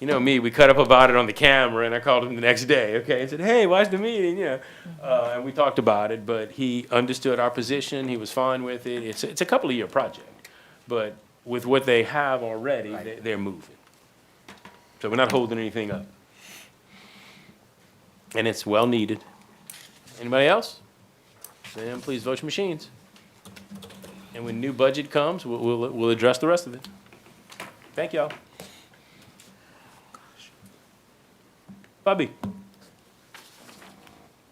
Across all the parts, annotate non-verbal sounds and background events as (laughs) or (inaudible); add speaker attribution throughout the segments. Speaker 1: you know me, we cut up about it on the camera, and I called him the next day, okay, and said, hey, watch the meeting, you know. Uh, and we talked about it, but he understood our position, he was fine with it, it's, it's a couple of year project. But with what they have already, they, they're moving. So we're not holding anything up. And it's well needed. Anybody else? Then please vote your machines. And when new budget comes, we'll, we'll, we'll address the rest of it. Thank y'all. Bobby,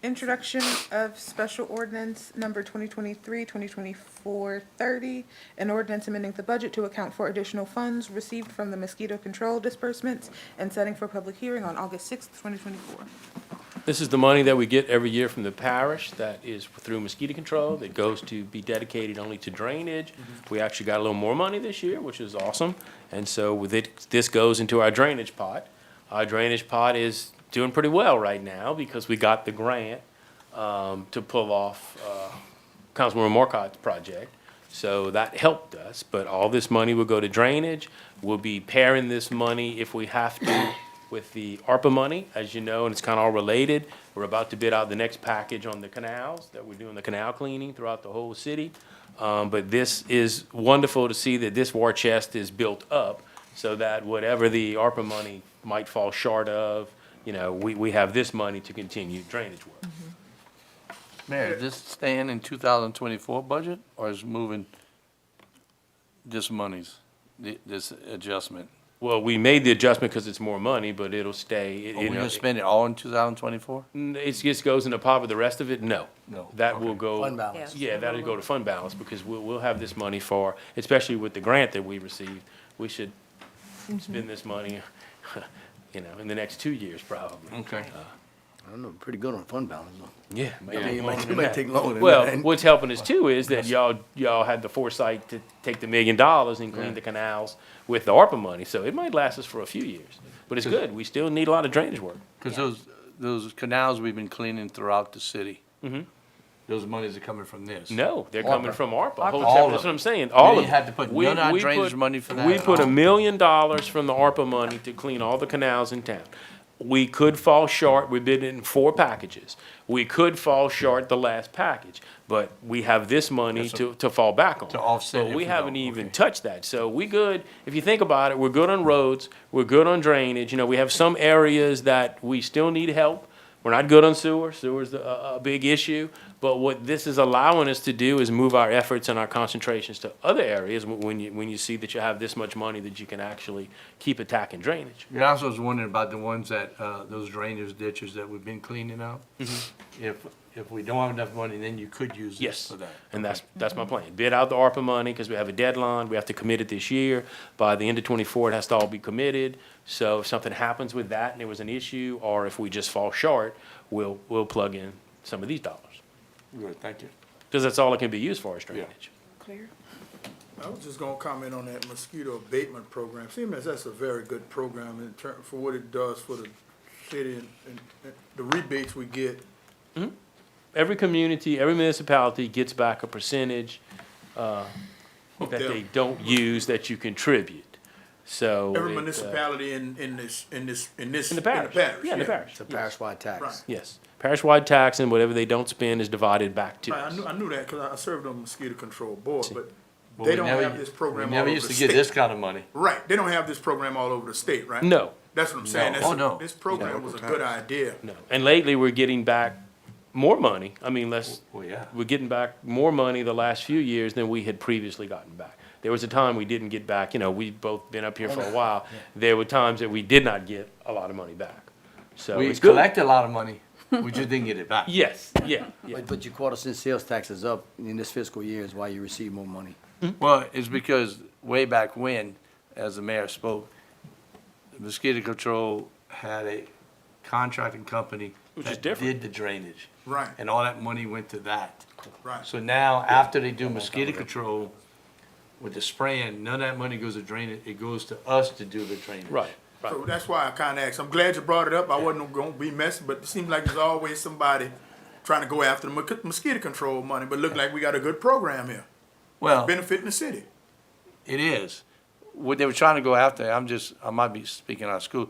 Speaker 2: Introduction of special ordinance number 2023, 2024, 30, an ordinance amending the budget to account for additional funds received from the mosquito control disbursements and setting for public hearing on August 6th, 2024.
Speaker 1: this is the money that we get every year from the parish that is through mosquito control, that goes to be dedicated only to drainage. We actually got a little more money this year, which is awesome, and so with it, this goes into our drainage pot. Our drainage pot is doing pretty well right now because we got the grant, um, to pull off, uh, Councilwoman Markot's project. So that helped us, but all this money will go to drainage. We'll be pairing this money if we have to with the ARPA money, as you know, and it's kind of all related. We're about to bid out the next package on the canals, that we're doing the canal cleaning throughout the whole city. Um, but this is wonderful to see that this war chest is built up so that whatever the ARPA money might fall short of, you know, we, we have this money to continue drainage work.
Speaker 3: Mayor, is this staying in 2024 budget, or is moving this monies, thi- this adjustment?
Speaker 1: Well, we made the adjustment because it's more money, but it'll stay. it-
Speaker 3: Are we
Speaker 1: you know,
Speaker 3: gonna spend it all in 2024?
Speaker 1: N- It just goes in the pot with the rest of it? No.
Speaker 3: No,
Speaker 1: That will go.
Speaker 4: Fund balance.
Speaker 1: Yeah, that'll go to fund balance because we'll, we'll have this money for, especially with the grant that we received, we should spend this money, (laughs) you know, in the next two years probably.
Speaker 3: Okay.
Speaker 5: Uh,
Speaker 4: I don't know, pretty good on fund balance though.
Speaker 1: Yeah.
Speaker 4: I
Speaker 1: man,
Speaker 4: mean, it
Speaker 1: longer
Speaker 4: might,
Speaker 1: than
Speaker 4: it might
Speaker 1: that.
Speaker 4: take longer than
Speaker 1: Well,
Speaker 4: that.
Speaker 1: what's helping us too is that y'all, y'all had the foresight to take the million dollars and clean the canals with the ARPA money. So it might last us for a few years, but it's good. We still need a lot of drainage work.
Speaker 3: Because those, those canals we've been cleaning throughout the city.
Speaker 1: Mhm.
Speaker 3: Those monies are coming from this.
Speaker 1: No, they're
Speaker 3: ARPA.
Speaker 1: coming from ARPA. Whole
Speaker 3: All
Speaker 1: chapter-
Speaker 3: of
Speaker 1: That's what
Speaker 3: it.
Speaker 1: I'm saying, all of
Speaker 3: You
Speaker 1: it.
Speaker 3: had to put
Speaker 1: We-
Speaker 3: none on
Speaker 1: we
Speaker 3: drainage
Speaker 1: put-
Speaker 3: money for that
Speaker 1: We
Speaker 3: at
Speaker 1: put a
Speaker 3: all.
Speaker 1: million dollars from the ARPA money to clean all the canals in town. We could fall short, we bid in four packages. We could fall short the last package, but we have this money
Speaker 3: That's a-
Speaker 1: to, to fall back on.
Speaker 3: To offset
Speaker 1: But
Speaker 3: if
Speaker 1: we
Speaker 3: we
Speaker 1: haven't
Speaker 3: don't,
Speaker 1: even
Speaker 3: okay.
Speaker 1: touched that, so we good, if you think about it, we're good on roads, we're good on drainage, you know, we have some areas that we still need help. We're not good on sewer, sewer's a, a a big issue, but what this is allowing us to do is move our efforts and our concentrations to other areas wh- when you, when you see that you have this much money that you can actually keep attacking drainage.
Speaker 3: And I also was wondering about the ones that, uh, those drainage ditches that we've been cleaning out. If, if we don't have enough money, then you could use this
Speaker 1: Yes,
Speaker 3: for that.
Speaker 1: and that's, that's my plan. Bid out the ARPA money, because we have a deadline, we have to commit it this year. By the end of twenty-four, it has to all be committed. So if something happens with that and there was an issue, or if we just fall short, we'll, we'll plug in some of these dollars.
Speaker 3: Good, thank you.
Speaker 1: Because that's all it can be used for is drainage.
Speaker 2: Clear?
Speaker 5: I was just gonna comment on that mosquito abatement program. CMS, that's a very good program in turn, for what it does for the city and, and and the rebates we get.
Speaker 1: Every community, every municipality gets back a percentage, uh, that they don't use that you contribute. So.
Speaker 5: Every
Speaker 1: it, uh,
Speaker 5: municipality in, in this, in this, in this.
Speaker 1: In the parish. Yeah, in the parish.
Speaker 4: It's a parish-wide tax.
Speaker 5: Right.
Speaker 1: Yes. Parish-wide tax and whatever they don't spend is divided back to
Speaker 5: Right, I
Speaker 1: us.
Speaker 5: knew, I knew that, cause I- I served on the mosquito control board, but
Speaker 3: But
Speaker 5: they
Speaker 3: we
Speaker 5: don't
Speaker 3: never
Speaker 5: have
Speaker 3: u-
Speaker 5: this program
Speaker 3: We
Speaker 5: all
Speaker 3: never
Speaker 5: over the
Speaker 3: used to get this
Speaker 5: state.
Speaker 3: kind of money.
Speaker 5: Right, they don't have this program all over the state, right?
Speaker 1: No,
Speaker 5: That's what I'm saying.
Speaker 3: No.
Speaker 5: That's
Speaker 3: Oh,
Speaker 5: a-
Speaker 3: no.
Speaker 5: This program was a good idea.
Speaker 1: no. And lately, we're getting back more money. I mean, less,
Speaker 3: Well, Oh, yeah.
Speaker 1: we're getting back more money the last few years than we had previously gotten back. There was a time we didn't get back, you know, we've both been up here for a while. There were times that we did not get a lot of money back. So
Speaker 3: We
Speaker 1: it's good.
Speaker 3: collected a lot of money, we just didn't get it back.
Speaker 1: Yes, yeah, yeah.
Speaker 4: But, but your quarter cent sales tax is up in this fiscal year is why you receive more money.
Speaker 3: Well, it's because way back when, as the mayor spoke, mosquito control had a contracting company
Speaker 1: Which is
Speaker 3: that
Speaker 1: different.
Speaker 3: did the drainage.
Speaker 5: Right.
Speaker 3: And all that money went to that.
Speaker 5: Right.
Speaker 3: So now, after they do mosquito control with the spraying, none of that money goes to drainage, it goes to us to do the drainage.
Speaker 1: Right, right.
Speaker 5: So that's why I kinda asked. I'm glad you brought it up. I wasn't gonna be messy, but it seems like there's always somebody trying to go after the mo- mosquito control money, but look like we got a good program here,
Speaker 3: Well,
Speaker 5: benefiting the city.
Speaker 3: it is. What they were trying to go after, I'm just, I might be speaking out of school,